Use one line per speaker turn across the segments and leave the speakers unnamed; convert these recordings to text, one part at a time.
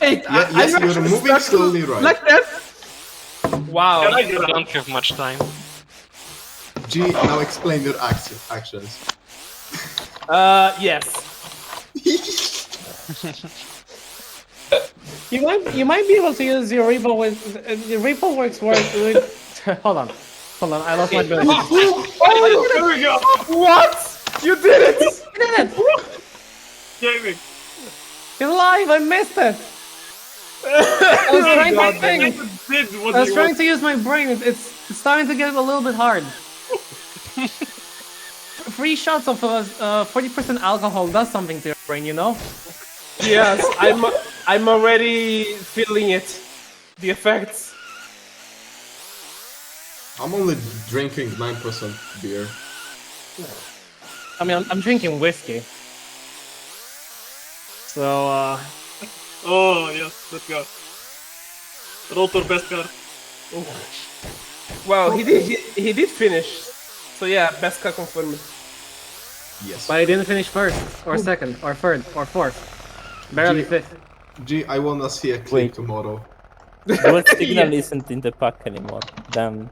Wait,
Yeah,
I-
yes,
I'm
you're
actually
moving
stuck
slowly right.
Like that? Wow.
I don't have much time.
G, now explain your action, actions.
Uh, yes. You might you might be able to use your repo with uh, your repo works works with. hold on, hold on. I lost my ability.
Oh, there we go!
what? You did it! You did it!
Gaming!
You're live. I missed it. I
Oh
was trying my thing.
did what
I was
you
trying to use my brain. It's, it's starting to get a little bit hard. Three shots of uh, uh, 40% alcohol does something to your brain, you know?
Yes, I'm I'm already feeling it. The effects.
I'm only drinking 9% beer.
I mean, I'm, I'm drinking whiskey. So, uh,
Oh, yes, let's go. Roll to best card.
Well, he did he, he did finish. So yeah, Beska confirmed.
Yes.
but I didn't finish first, or second, or third, or fourth. Barely
Gee.
fifth.
G, I wanna see a clip
Wait.
tomorrow.
Dual signal isn't in the pack anymore. Damn.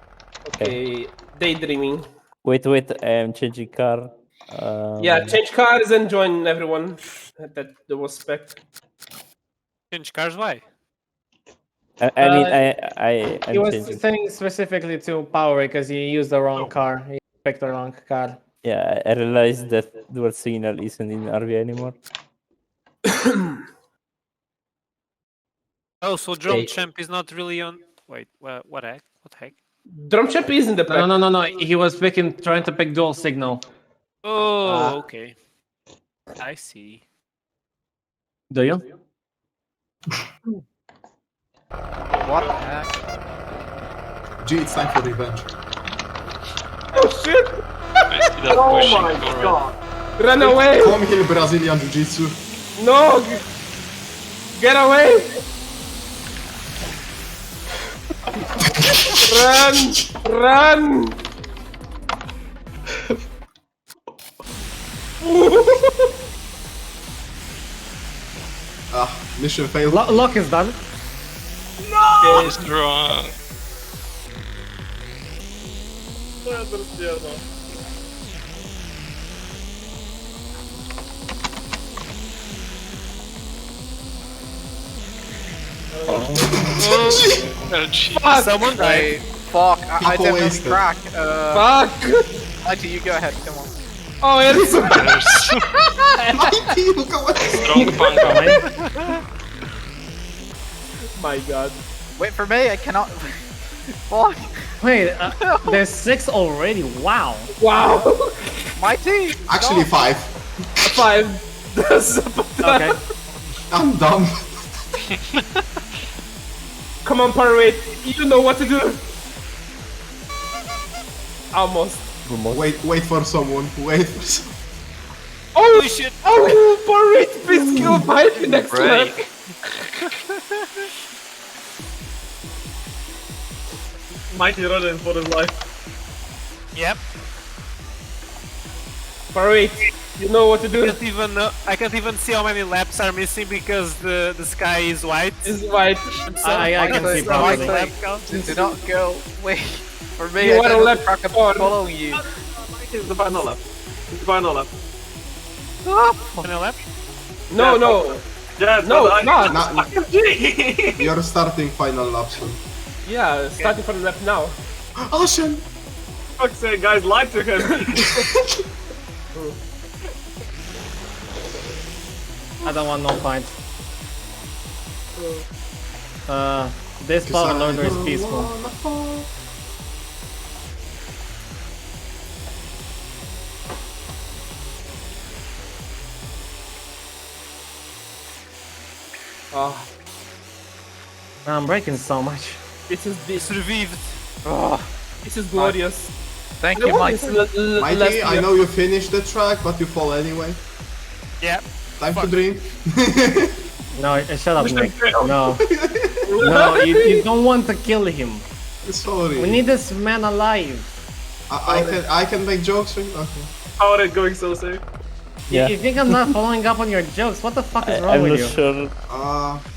Okay, daydreaming.
Wait, wait. I'm changing car. Um,
Yeah, change cars and join everyone that that was spec.
Change cars, why?
I, I mean,
Uh,
I, I,
He
I'm
was
changing.
saying specifically to Power because he used the wrong car. He picked the wrong car.
Yeah, I I realized that dual signal isn't in RV anymore.
Oh, so drone
Hey.
champ is not really on. Wait, wha- what heck? What heck?
Drum champ is in the
No,
pack.
no, no, no. He was picking, trying to pick dual signal.
Oh,
Ah.
okay. I see.
Do you?
What the heck?
G, it's time for revenge.
Oh shit!
Oh my god!
Run away!
Come here, Brazilian Jiu Jitsu.
No! g- Get away! run! Run!
Ah, mission failed.
Lo- Lock is done.
Someone died. Fuck, I, I
People
definitely
wasted.
crack. Uh,
Fuck!
Alexa, you go ahead, come on.
Oh, Eric!
Mikey, look at what-
My god.
Wait for me, I cannot. Fuck,
Wait, uh, there's six already. Wow.
Wow!
my team!
Actually,
No.
five.
Five. That's about-
Okay.
I'm dumb.
Come on, Parade. You know what to do. Almost.
Wait, wait for someone. Wait for someone.
Oh shit! Oh, Parade, please kill Pipe next
Right.
turn.
Mighty running for his life.
Yep.
Parade, you know what to do.
Can't even, know- I can't even see how many laps are missing because the, the sky is white.
This is why.
I, I can
Alexa,
see
no, I
properly.
think-
Lap count.
Do not go. Wait for me,
You
I
wanna
don't
let
crack up
on.
following you.
It's the final lap. It's the final lap.
Can I lap?
No, no.
Yeah,
No, it's not.
Now,
G!
you're starting final lap soon.
Yeah, starting from the left now.
Ocean!
Fuck's sake, guys, lied to him.
I don't want no fights. Uh, this power
Cause I
loader is
don't
peaceful.
wanna fall.
Oh,
I'm breaking so much.
this is this.
Survived.
This is glorious.
Thank you, Mike.
This is the- the last
Mikey, I
year.
know you finished the track, but you fall anyway.
Yep.
Time to drink.
No, uh, shut up, Nick. No. No, you, you don't want to kill him.
Sorry.
We need this man alive.
I, I can I can make jokes right Okay.
How are it going so safe?
You-
Yeah.
You think I'm not following up on your jokes? What the fuck is
I,
wrong
I'm
with
not
you?
sure.
Uh,